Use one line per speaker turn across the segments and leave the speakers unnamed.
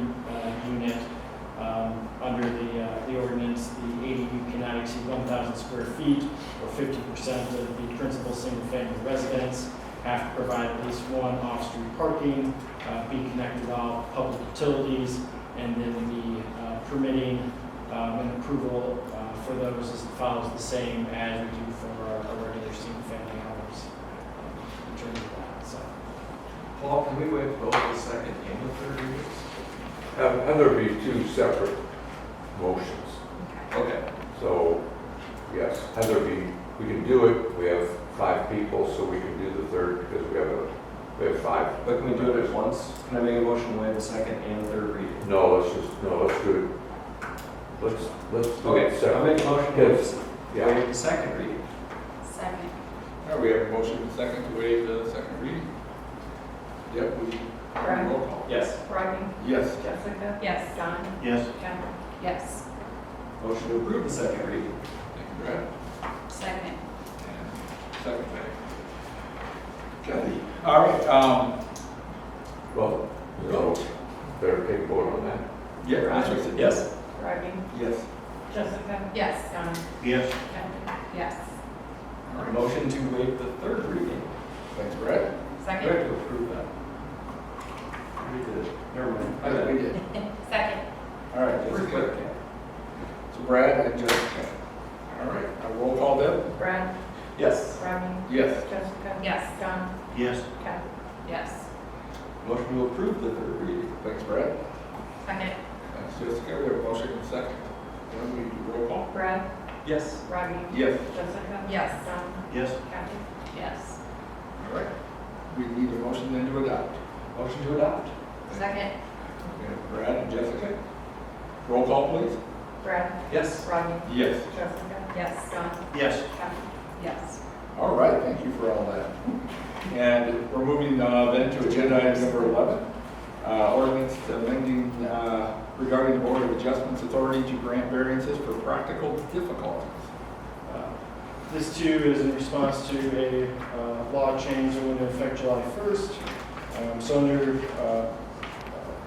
uh, um, feet or fifty percent of the principal single-family residence, have to provide at least one off-street parking, uh, be connected to all public utilities, and then the uh, permitting um, and approval uh, for those is- follows the same as we do for our our regular single-family homes um, in terms of that, so.
Paul, can we waive both the second and the third readings?
Have, have there be two separate motions.
Okay,
So, yes, have there be, we can do it, we have five people, so we can do the third because we have a, we have five.
but can we do it at once? Can I make a motion to waive the second and third reading?
No, let's just, no, let's do it, let's, let's do it
Okay, I'll
separate.
make a motion to waive
Yeah,
waive the second reading.
Second.
All right, we have a motion and a second to waive the second reading. Yep, we,
Brian.
roll call.
Yes.
Rodney?
Yes.
Jessica? Yes. John?
Yes.
Kendall? Yes.
Motion to approve the second reading.
Thank you, Brad.
Second.
And Second by Kathy. All right, um,
well, no, better take a vote on that.
yeah, that's what I said.
Yes.
Rodney?
Yes.
Jessica? Yes. John?
Yes.
Kendall? Yes.
All right, Motion to waive the third reading.
Thanks, Brad.
Do I have to approve that? We did it. Never mind.
I think we did.
Second.
All right,
We're
Jessica.
good.
So Brad and Jessica. All right, I roll call Deb?
Brad?
Yes.
Rodney?
Yes.
Jessica? Yes. John?
Yes.
Kendall? Yes.
Motion to approve the third reading.
Thanks, Brad.
Second.
Thanks, Jessica. We have a motion and a second. Then we do roll call.
Brad?
Yes.
Rodney?
Yes.
Jessica? Yes. John?
Yes.
Kendall? Yes.
All right. We need a motion then to adopt.
Motion to adopt.
Second.
We have Brad and Jessica. Roll call, please.
Brad?
Yes.
Rodney?
Yes.
Jessica? Yes. John?
Yes.
Kendall? Yes.
All right, thank you for all that. And we're moving uh, then to agenda item number 11, uh, ordinance amending uh, regarding the Board of Adjustments Authority to grant variances for practical difficulties.
Uh, This too is in response to a uh, law change that went into effect July 1st. Um, So under uh, uh,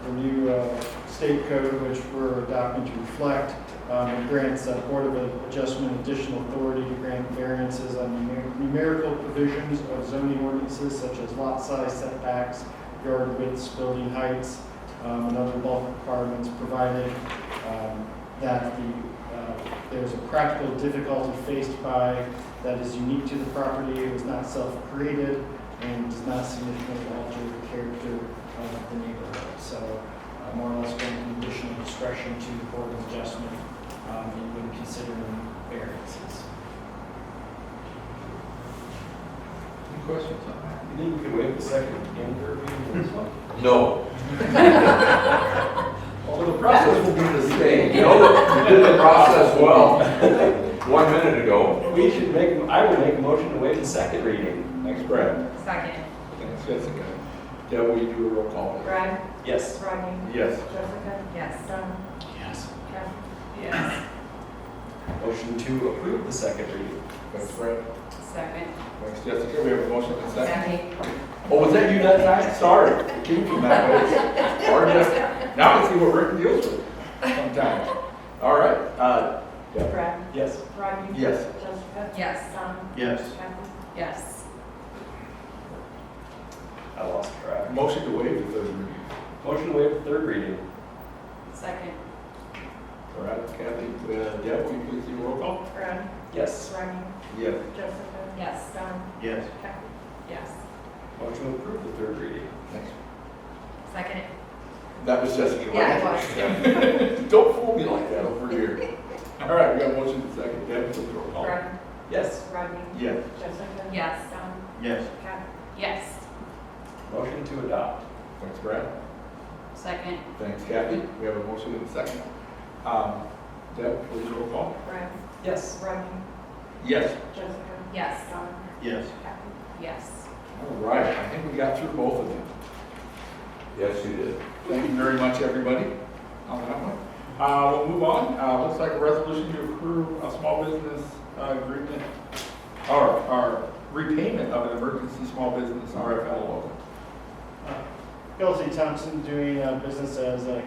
the new uh, state code, which we're adopting to reflect, um, it grants the Board of Adjustment additional authority to grant variances on numer- numerical provisions of zoning ordinances such as lot size setbacks, yard widths, building heights, um, and other bulk requirements provided um, that the, uh, there's a practical difficulty faced by that is unique to the property, it was not self-created, and does not significantly alter the character of the neighborhood. So uh, more or less granting additional discretion to the board of adjustment um, in when considering variances.
Any questions on that?
You think we could waive the second and third reading on this one?
No,
Although the process will be the
you
same.
know, you did the process well, one minute ago.
We should make, I would make a motion to waive the second reading.
Thanks, Brad.
Second.
Thanks, Jessica. Deb, will you do a roll call? please?
Brad?
Yes.
Rodney?
Yes.
Jessica? Yes. John?
Yes.
Kendall?
Yes. Motion to approve the second reading.
Thanks, Brad.
Second.
Thanks, Jessica. We have a motion and a second.
Second.
Oh, was that you that time? Sorry. It Came from that way. Or just, now I see what Rick deals with sometimes. All right, uh,
Brad?
Yes.
Rodney?
Yes.
Jessica?
Yes.
John?
Yes.
Kendall?
Yes.
I lost track.
Motion to waive the third reading.
Motion to waive the third reading.
Second.
All right, Kathy, uh, Deb, will you please do a roll call?
Brad?
Yes.
Rodney?
Yes.
Jessica?
Yes.
John?
Yes.
Kendall?
Yes.
Motion to approve the third reading.
Thanks.
Second.
That was Jessica. wasn't
Yeah, it
it? Don't fool me like that over here. All right, we got a motion and a second. Deb, please roll call.
Brad?
Yes.
Rodney?
Yes.
Jessica?
Yes.
John?
Yes.
Kendall?
Yes.
Motion to adopt.
Thanks, Brad.
Second.
Thanks, Kathy. We have a motion and a second. Um, Deb, please roll call.
Brad?
Yes.
Rodney?
Yes.
Jessica?
Yes.
John?
Yes.
Kendall?
Yes.
All right, I think we got through both of them.
Yes, you did.
Thank you very much, everybody, on that one. Uh, we'll move on, uh, looks like a resolution to approve a small business uh, agreement, or, or repayment of an emergency small business RFL loan.
Kelsey Thompson doing uh, business as uh,